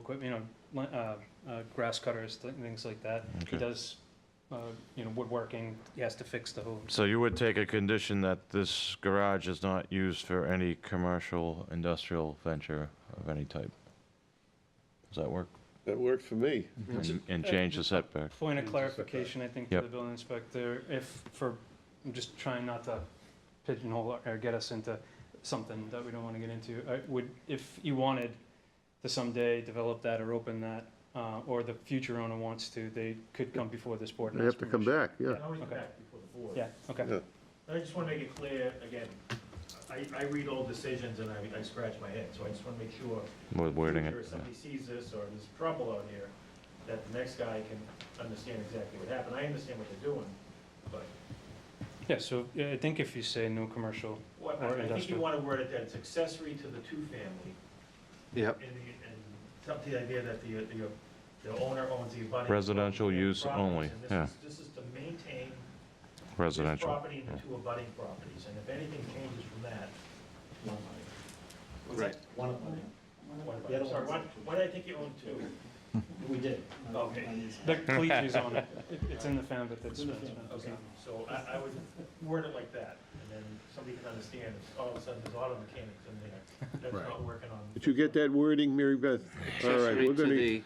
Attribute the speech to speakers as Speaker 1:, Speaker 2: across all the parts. Speaker 1: equipment, you know, li- uh, uh, grass cutters, th- things like that. He
Speaker 2: Okay.
Speaker 1: does, uh, you know, woodworking, he has to fix the hooves.
Speaker 2: So you would take a condition that this garage is not used for any commercial, industrial venture of any type? Does that work?
Speaker 3: That worked for me.
Speaker 1: Mm-hmm.
Speaker 2: And- And change the setback?
Speaker 1: Point of
Speaker 4: Just a
Speaker 1: clarification, I think, for
Speaker 2: Yep.
Speaker 1: the building inspector, if, for, I'm just trying not to pigeonhole or get us into something that we don't want to get into. I would, if you wanted to someday develop that or open that, uh, or the future owner wants to, they could come before this board. and
Speaker 3: They have
Speaker 1: ask
Speaker 3: to come
Speaker 1: permission.
Speaker 3: back, yeah.
Speaker 4: I always
Speaker 1: Okay.
Speaker 4: back before the board.
Speaker 1: Yeah, okay.
Speaker 3: Yeah.
Speaker 4: I just want to make it clear, again, I, I read old decisions and I, I scratch my head, so I just want to make sure.
Speaker 2: With wording it,
Speaker 4: future If
Speaker 2: yeah.
Speaker 4: somebody sees this or there's trouble out here, that the next guy can understand exactly what happened. I understand what they're doing, but
Speaker 1: Yeah, so yeah, I think if you say no commercial,
Speaker 4: what,
Speaker 1: Or
Speaker 4: I think you
Speaker 1: industrial.
Speaker 4: want to word it that it's accessory to the two-family.
Speaker 3: Yep.
Speaker 4: And, the- and tell the idea that the, the, the owner owns the abutting.
Speaker 2: Residential
Speaker 4: property and
Speaker 2: use
Speaker 4: properties,
Speaker 2: only,
Speaker 4: and this
Speaker 2: yeah.
Speaker 4: is- This is to maintain This
Speaker 2: residential.
Speaker 4: property and the two abutting properties, and if anything changes from that, one abutting.
Speaker 5: Right.
Speaker 6: One of them,
Speaker 4: One
Speaker 6: The other
Speaker 4: abutting, sorry,
Speaker 6: one's-
Speaker 4: what, what did I think you owned two?
Speaker 6: we did.
Speaker 4: Okay.
Speaker 1: the cleat is on it, It- it's in the fan, but that's.
Speaker 6: It's in the fan,
Speaker 4: Okay, so I, I would word it like that, and then somebody can understand, if all of a sudden there's auto mechanics in there, that's not working on.
Speaker 3: Did you get that wording, Mary Beth? All right,
Speaker 5: Accessory
Speaker 3: we're
Speaker 5: to
Speaker 3: gonna,
Speaker 5: the-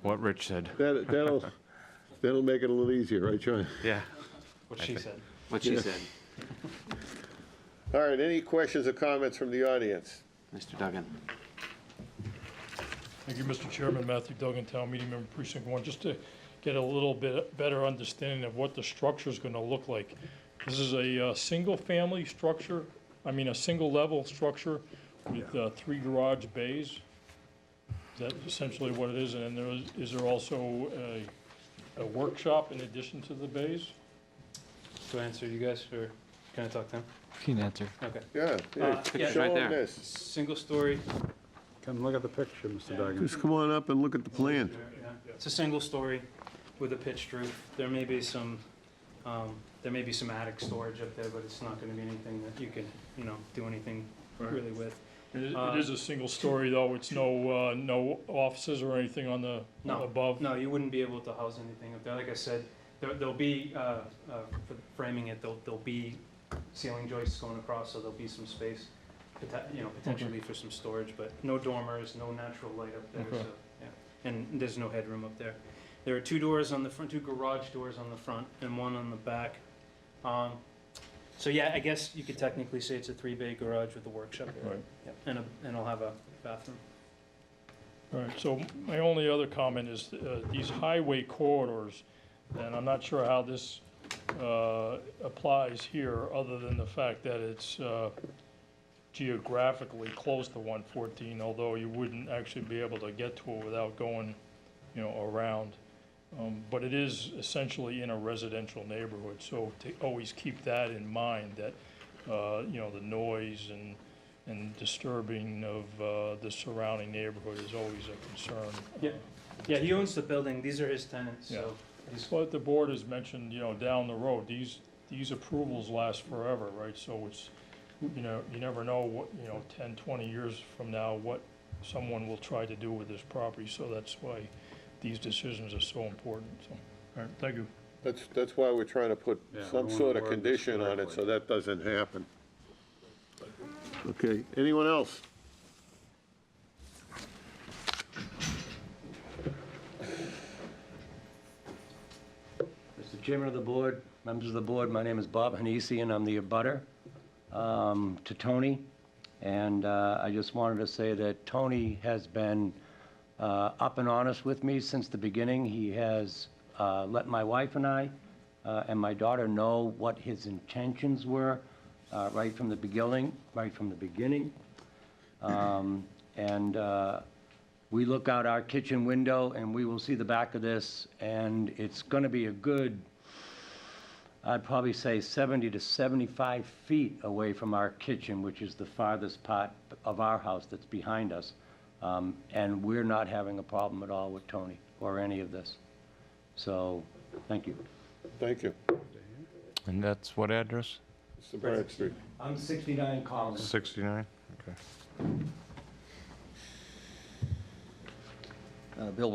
Speaker 2: What Rich said.
Speaker 3: that, that'll, that'll make it a little easier, right, John?
Speaker 2: Yeah.
Speaker 1: What she said.
Speaker 5: What she said,
Speaker 3: All right, any questions or comments from the audience?
Speaker 5: Mr. Duggan.
Speaker 7: Thank you, Mr. Chairman. Matthew Duggan, Town Meeting Member Precinct One. Just to get a little bit better understanding of what the structure is going to look like. This is a uh, single-family structure, I mean, a single-level structure with uh, three garage bays. Is that essentially what it is? And then there is, is there also a, a workshop in addition to the bays?
Speaker 1: Do I answer you guys, or can I talk to him?
Speaker 8: Keen answer.
Speaker 1: Okay.
Speaker 3: Yeah,
Speaker 1: Uh,
Speaker 3: yeah,
Speaker 1: yeah.
Speaker 5: Picture's
Speaker 3: show
Speaker 5: right
Speaker 3: them
Speaker 5: there.
Speaker 3: this.
Speaker 1: Single story.
Speaker 9: Come look at the picture, Mr. Duggan.
Speaker 3: Just come on up and look at the plan.
Speaker 1: It's a single story with a pitched roof. There may be some, um, there may be some attic storage up there, but it's not gonna be anything that you can, you know, do anything really with.
Speaker 7: It is-
Speaker 1: Uh,
Speaker 7: it is a single story, though. It's no, uh, no offices or anything on the,
Speaker 1: No.
Speaker 7: above?
Speaker 1: No, you wouldn't be able to house anything up there. Like I said, there, there'll be, uh, uh, for framing it, there'll, there'll be ceiling joists going across, so there'll be some space, pote- you know, potentially for some storage, but no dormers, no natural light up there,
Speaker 7: Okay.
Speaker 1: so, yeah. And there's no headroom up there. There are two doors on the front, two garage doors on the front and one on the back. Um, so yeah, I guess you could technically say it's a three-bay garage with a workshop area.
Speaker 7: Right.
Speaker 1: Yep. And a, and I'll have a bathroom.
Speaker 7: All right, so my only other comment is, uh, these highway corridors, and I'm not sure how this, uh, applies here, other than the fact that it's, uh, geographically close to one fourteen, although you wouldn't actually be able to get to it without going, you know, around. Um, but it is essentially in a residential neighborhood, so to always keep that in mind, that, uh, you know, the noise and, and disturbing of, uh, the surrounding neighborhood is always a concern.
Speaker 1: Yeah. Yeah, he owns the building. These are his tenants, so. he's-
Speaker 7: But the board has mentioned, you know, down the road, these, these approvals last forever, right? So it's, you know, you never know what, you know, 10, 20 years from now, what someone will try to do with this property. So that's why these decisions are so important, so, all right, thank you.
Speaker 3: That's, that's why we're trying to put
Speaker 9: Yeah, we
Speaker 3: some
Speaker 9: wanna
Speaker 3: sort of
Speaker 9: word this
Speaker 3: condition on it,
Speaker 9: correctly.
Speaker 3: so that doesn't happen. Okay, anyone else?
Speaker 6: Mr. Chairman of the board, members of the board, my name is Bob Hanisi, and I'm the abutter um, to Tony. And uh, I just wanted to say that Tony has been uh, up and honest with me since the beginning. He has uh, let my wife and I uh, and my daughter know what his intentions were uh, right from the beginning, right from the beginning. Um, And uh, we look out our kitchen window and we will see the back of this, and it's going to be a good, I'd probably say 70 to 75 feet away from our kitchen, which is the farthest part of our house that's behind us. Um, And we're not having a problem at all with Tony or any of this. So, thank you.
Speaker 3: Thank you.
Speaker 2: And that's what address?
Speaker 3: Mr. Bradstreet.
Speaker 6: I'm 69 Collins.
Speaker 2: 69? Okay.
Speaker 5: uh, Bill